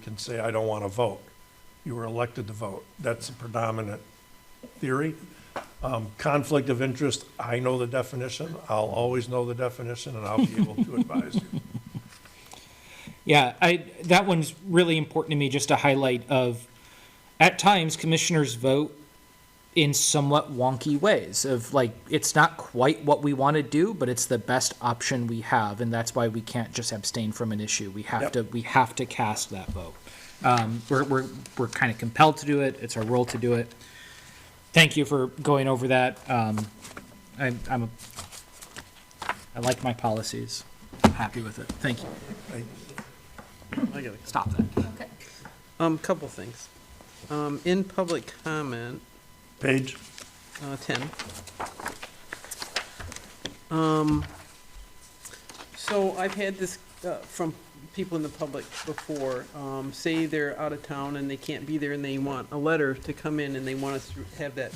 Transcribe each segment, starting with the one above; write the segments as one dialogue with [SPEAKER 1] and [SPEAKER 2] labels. [SPEAKER 1] can say, I don't want to vote. You were elected to vote. That's the predominant theory. Um, Conflict of interest, I know the definition. I'll always know the definition, and I'll be able to advise you.
[SPEAKER 2] Yeah, I, that one's really important to me, just a highlight of, at times, commissioners vote in somewhat wonky ways of like, it's not quite what we want to do, but it's the best option we have, and that's why we can't just abstain from an issue. We have
[SPEAKER 1] Yep.
[SPEAKER 2] to, we have to cast that vote. Um, we're, we're, we're kind of compelled to do it. It's our role to do it. Thank you for going over that. Um, I, I'm, a- I like my policies. I'm happy with it. Thank you.
[SPEAKER 3] I got it.
[SPEAKER 2] Stop that.
[SPEAKER 3] Um, couple things. Um, in public comment,
[SPEAKER 1] Paige?
[SPEAKER 3] uh, ten. Um, so I've had this, uh, from people in the public before, um, say they're out of town and they can't be there and they want a letter to come in and they want us to have that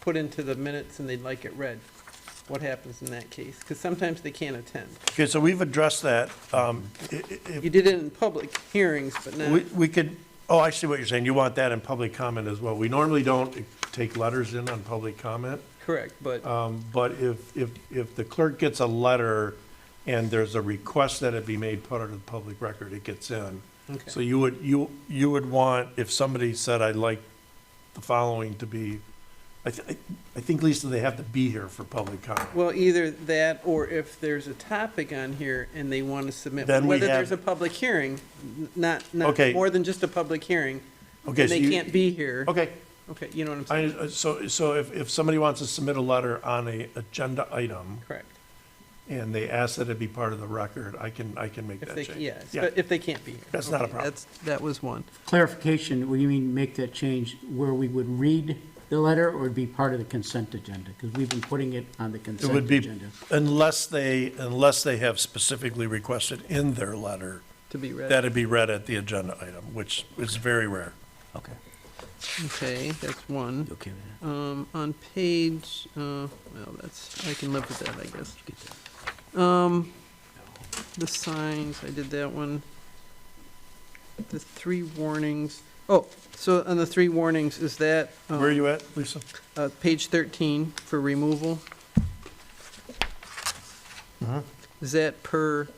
[SPEAKER 3] put into the minutes and they'd like it read. What happens in that case? Because sometimes they can't attend.
[SPEAKER 1] Okay, so we've addressed that. Um, i- i- if-
[SPEAKER 3] You did it in public hearings, but not.
[SPEAKER 1] We we could, oh, I see what you're saying. You want that in public comment as well. We normally don't take letters in on public comment.
[SPEAKER 3] Correct, but,
[SPEAKER 1] Um, But if, if, if the clerk gets a letter and there's a request that it be made part of the public record, it gets in.
[SPEAKER 3] Okay.
[SPEAKER 1] So you would, you, you would want, if somebody said, I'd like the following to be, I, th- I- I think, Lisa, they have to be here for public comment.
[SPEAKER 3] well, either that, or if there's a topic on here and they want to submit,
[SPEAKER 1] Then we
[SPEAKER 3] whether
[SPEAKER 1] have-
[SPEAKER 3] there's a public hearing, n- not, not,
[SPEAKER 1] Okay.
[SPEAKER 3] more than just a public hearing, and
[SPEAKER 1] Okay, so
[SPEAKER 3] they
[SPEAKER 1] you-
[SPEAKER 3] can't be here.
[SPEAKER 1] Okay,
[SPEAKER 3] Okay, you know what I'm saying?
[SPEAKER 1] I, so, so if, if somebody wants to submit a letter on a agenda item
[SPEAKER 3] Correct.
[SPEAKER 1] and they ask that it be part of the record, I can, I can make
[SPEAKER 3] If
[SPEAKER 1] that
[SPEAKER 3] they,
[SPEAKER 1] change.
[SPEAKER 3] yes,
[SPEAKER 1] Yeah.
[SPEAKER 3] but if they can't be here.
[SPEAKER 1] That's not a
[SPEAKER 3] Okay,
[SPEAKER 1] problem.
[SPEAKER 3] that's- That was one.
[SPEAKER 4] Clarification, what do you mean make that change where we would read the letter or it'd be part of the consent agenda? Because we've been putting it on the
[SPEAKER 1] It
[SPEAKER 4] consent
[SPEAKER 1] would be,
[SPEAKER 4] agenda.
[SPEAKER 1] unless they, unless they have specifically requested in their letter
[SPEAKER 3] To be read.
[SPEAKER 1] that it be read at the agenda item, which is very rare.
[SPEAKER 4] Okay.
[SPEAKER 3] Okay, that's one.
[SPEAKER 4] Okay with that?
[SPEAKER 3] Um, on page, uh, well, that's, I can live with that, I guess.
[SPEAKER 4] Get that.
[SPEAKER 3] Um, the signs, I did that one. The three warnings, oh, so on the three warnings, is that,
[SPEAKER 1] Where are
[SPEAKER 3] um,
[SPEAKER 1] you at, Lisa?
[SPEAKER 3] uh, page thirteen for removal?
[SPEAKER 1] Uh-huh.
[SPEAKER 3] Is that per,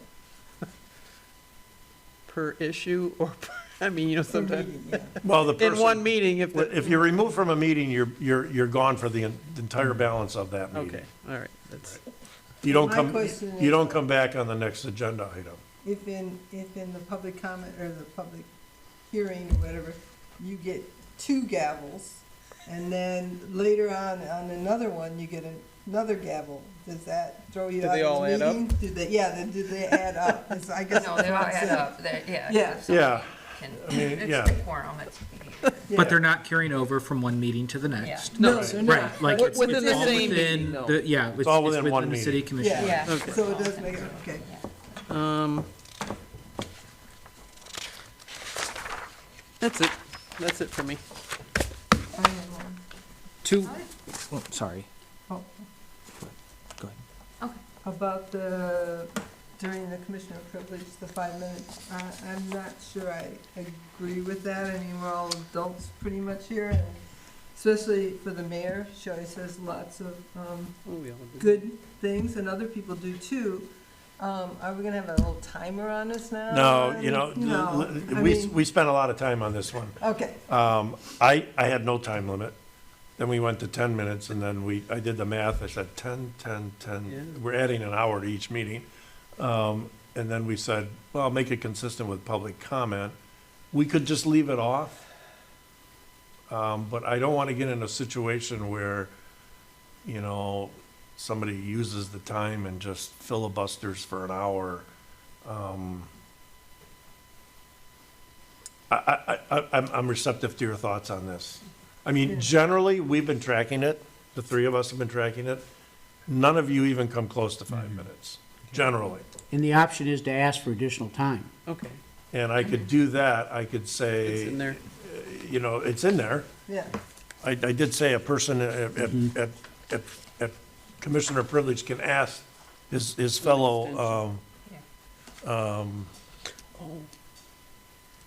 [SPEAKER 3] per issue or, per- I mean, you know, sometimes,
[SPEAKER 1] Well, the
[SPEAKER 3] in one
[SPEAKER 1] person,
[SPEAKER 3] meeting if the,
[SPEAKER 1] if you're removed from a meeting, you're, you're, you're gone for the en- the entire balance of that meeting.
[SPEAKER 3] okay, all right, that's,
[SPEAKER 1] You don't
[SPEAKER 5] My
[SPEAKER 1] come,
[SPEAKER 5] question
[SPEAKER 1] you
[SPEAKER 5] is-
[SPEAKER 1] don't come back on the next agenda item.
[SPEAKER 5] If in, if in the public comment or the public hearing or whatever, you get two gavels, and then later on, on another one, you get another gavel, does that throw you
[SPEAKER 3] Do
[SPEAKER 5] out
[SPEAKER 3] they all
[SPEAKER 5] of
[SPEAKER 3] add
[SPEAKER 5] the
[SPEAKER 3] up?
[SPEAKER 5] meeting? Do they, yeah, then do they add up? It's- I guess.
[SPEAKER 6] No, they all add up, they yeah. 'cause
[SPEAKER 5] Yeah.
[SPEAKER 6] if somebody
[SPEAKER 1] Yeah.
[SPEAKER 6] can-
[SPEAKER 1] I mean,
[SPEAKER 6] It's
[SPEAKER 1] yeah.
[SPEAKER 6] the quorum, it's,
[SPEAKER 2] But they're not carrying over from one meeting to the next.
[SPEAKER 3] no,
[SPEAKER 5] Right.
[SPEAKER 2] Right, like
[SPEAKER 3] Wi-
[SPEAKER 2] it's,
[SPEAKER 3] within
[SPEAKER 2] it's
[SPEAKER 3] the
[SPEAKER 2] all
[SPEAKER 3] same
[SPEAKER 2] within,
[SPEAKER 3] meeting, though.
[SPEAKER 2] the- yeah, it's,
[SPEAKER 1] all
[SPEAKER 2] it's
[SPEAKER 1] within one
[SPEAKER 2] within the
[SPEAKER 1] meeting.
[SPEAKER 2] city commission.
[SPEAKER 5] Yeah,
[SPEAKER 6] Yeah.
[SPEAKER 5] so it does make, it- okay.
[SPEAKER 3] um, that's it, that's it for me.
[SPEAKER 2] Two, oh, sorry.
[SPEAKER 5] Oh,
[SPEAKER 2] Go ahead.
[SPEAKER 5] About the, during the commissioner privilege, the five minutes, I, I'm not sure I agree with that. I mean, we're all adults pretty much here, and especially for the mayor, she always says lots of, um,
[SPEAKER 3] Oh, we all did.
[SPEAKER 5] good things, and other people do too. Um, are we gonna have a little timer on us now?
[SPEAKER 1] No, you know,
[SPEAKER 5] uh, No, I
[SPEAKER 1] we,
[SPEAKER 5] mean-
[SPEAKER 1] we spent a lot of time on this one.
[SPEAKER 5] Okay,
[SPEAKER 1] Um, I, I had no time limit. Then we went to ten minutes and then we, I did the math. I said 10, 10, 10.
[SPEAKER 3] Yeah.
[SPEAKER 1] We're adding an hour to each meeting. Um, and then we said, well, make it consistent with public comment. We could just leave it off. Um, but I don't want to get in a situation where, you know, somebody uses the time and just filibusters for an hour. Um, I, I, I, I'm, I'm receptive to your thoughts on this. I mean, generally, we've been tracking it, the three of us have been tracking it. None of you even come close to five minutes, generally.
[SPEAKER 4] And the option is to ask for additional time.
[SPEAKER 3] Okay,
[SPEAKER 1] And I could do that, I could
[SPEAKER 3] it's in
[SPEAKER 1] say,
[SPEAKER 3] there.
[SPEAKER 1] you know, it's in there.
[SPEAKER 5] yeah.
[SPEAKER 1] I, I did say a person at, at- at, at, at commissioner privilege can ask his, his fellow, um, um,